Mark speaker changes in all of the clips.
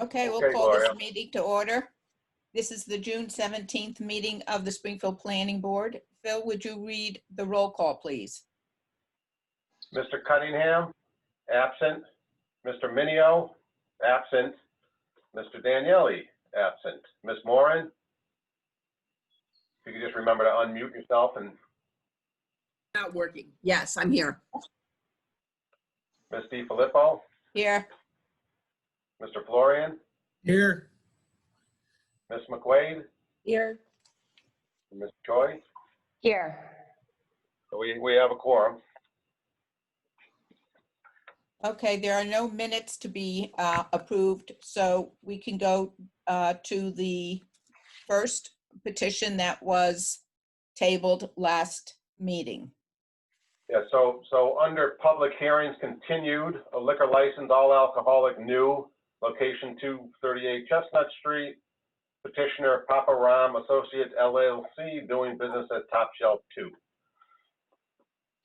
Speaker 1: Okay, we'll
Speaker 2: Okay,
Speaker 1: call this
Speaker 2: Gloria.
Speaker 1: meeting to order. This is the June 17th meeting of the Springfield Planning Board. Phil, would you read the roll call, please?
Speaker 2: Mr. Cunningham, absent. Mr. Minio, absent. Mr. Daniele, absent. Ms. Moran? If you could just remember to unmute yourself and
Speaker 3: Not working. Yes, I'm here.
Speaker 2: Ms. Di Filippo,
Speaker 1: Here,
Speaker 2: Mr. Florian,
Speaker 4: Here,
Speaker 2: Ms. McQuaid,
Speaker 3: Here.
Speaker 2: and Ms. Choi.
Speaker 5: Here.
Speaker 2: So We, we have a quorum.
Speaker 1: okay, there are no minutes to be uh, approved, so we can go uh, to the first petition that was tabled last meeting.
Speaker 2: Yeah, so, so under public hearings continued, a liquor license, all alcoholic, new, location 238 Chestnut Street. Petitioner Papa Ram Associates LLC, doing business as Top Shelf 2.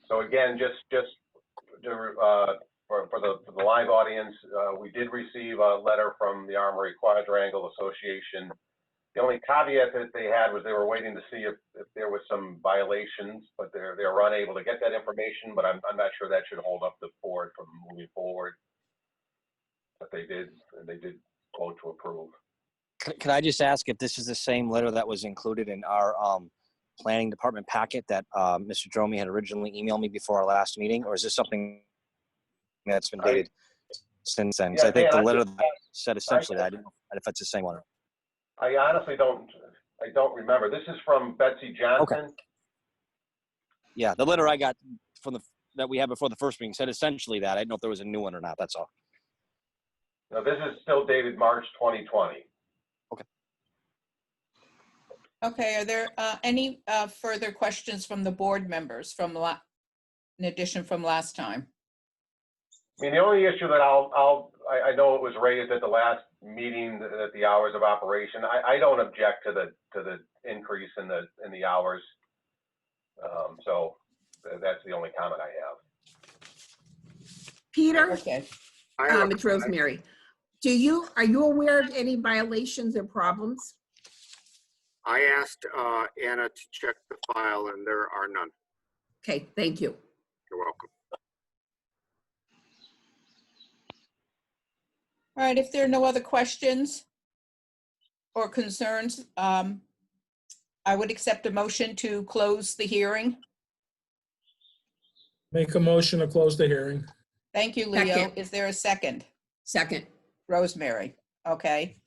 Speaker 2: So again, just, just to, uh, for, for the, for the live audience, uh, we did receive a letter from the Armory Quadrangle Association. The only caveat that they had was they were waiting to see if, if there was some violations, but they're, they're unable to get that information, but I'm, I'm not sure that should hold up the board from moving forward. But they did, and they did vote to approve.
Speaker 6: Can, can I just ask if this is the same letter that was included in our um, planning department packet that uh, Mr. Dromey had originally emailed me before our last meeting, or is this something that's been
Speaker 2: I-
Speaker 6: dated since then? 'Cause I think
Speaker 2: Yeah,
Speaker 6: the
Speaker 2: Dan,
Speaker 6: letter
Speaker 2: I-
Speaker 6: said essentially that. I didn't know if it's the same one.
Speaker 2: I honestly don't, I don't remember. This is from Betsy Johnson.
Speaker 6: Yeah, the letter I got from the that we had before the first meeting said essentially that. I didn't know if there was a new one or not. That's all.
Speaker 2: Now, this is still dated March 2020.
Speaker 1: Okay, are there uh, any uh, further questions from the board members from, la- in addition from last time?
Speaker 2: I mean, the only issue that I'll, I'll, I, I know it was raised at the last meeting, th- that the hours of operation, I, I don't object to the, to the increase in the, in the hours. Um, so th- that's the only comment I have.
Speaker 3: Peter,
Speaker 1: Okay.
Speaker 7: I have
Speaker 3: um,
Speaker 7: a-
Speaker 3: it's Rosemary. Do you, are you aware of any violations or problems?
Speaker 7: I asked uh, Anna to check the file, and there are none.
Speaker 3: Okay, thank you.
Speaker 7: You're welcome.
Speaker 1: All right, if there are no other questions or concerns, um, I would accept a motion to close the hearing.
Speaker 4: make a motion to close the hearing.
Speaker 1: Thank you, Leo.
Speaker 3: Second.
Speaker 1: Is there a second?
Speaker 3: Second.
Speaker 1: Rosemary, okay.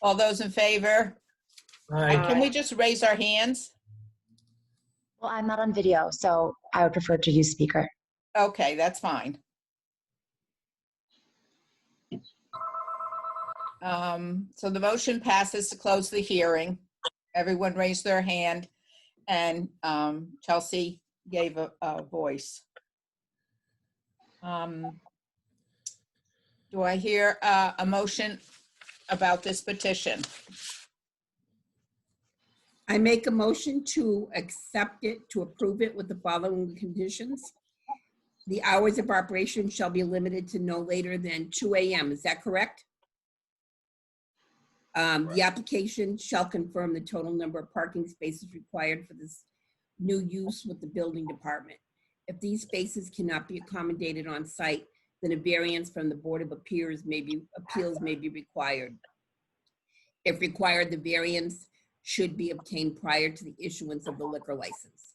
Speaker 1: All those in favor?
Speaker 4: Aye,
Speaker 1: Can we just raise our hands?
Speaker 5: Well, I'm not on video, so I would prefer to use speaker.
Speaker 1: Okay, that's fine. Um, So the motion passes to close the hearing. Everyone raised their hand, and um, Chelsea gave a- a voice. Um, Do I hear uh, a motion about this petition?
Speaker 3: I make a motion to accept it, to approve it with the following conditions. The hours of operation shall be limited to no later than two AM. Is that correct? Um, The application shall confirm the total number of parking spaces required for this new use with the building department. If these spaces cannot be accommodated on site, then a variance from the Board of Appeals may be, appeals may be required. If required, the variance should be obtained prior to the issuance of the liquor license.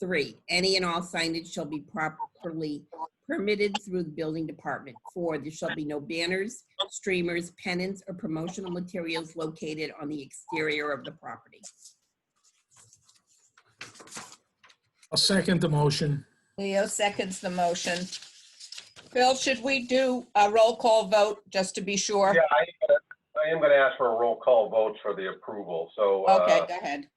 Speaker 3: Three, any and all signage shall be properly permitted through the building department. Four, there shall be no banners, streamers, pennants, or promotional materials located on the exterior of the property.
Speaker 4: I'll second the motion.
Speaker 1: Leo seconds the motion. Phil, should we do a roll call vote, just to be sure?
Speaker 2: Yeah, I, uh, I am gonna ask for a roll call vote for the approval, so. uh,
Speaker 1: Okay, go ahead.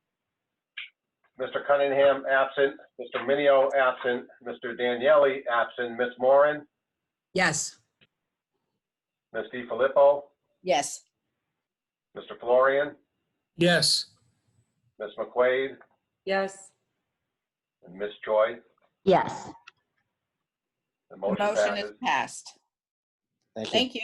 Speaker 2: Mr. Cunningham, absent. Mr. Minio, absent. Mr. Daniele, absent. Ms. Moran,
Speaker 3: Yes.
Speaker 2: Ms. Di Filippo,
Speaker 1: Yes.
Speaker 2: Mr. Florian,
Speaker 4: Yes,
Speaker 2: Ms. McQuaid,
Speaker 3: Yes.
Speaker 2: and Ms. Choi.
Speaker 5: Yes.
Speaker 2: The
Speaker 1: The
Speaker 2: motion
Speaker 1: motion is
Speaker 2: passes.
Speaker 1: passed.
Speaker 6: Thank you.
Speaker 1: Thank you.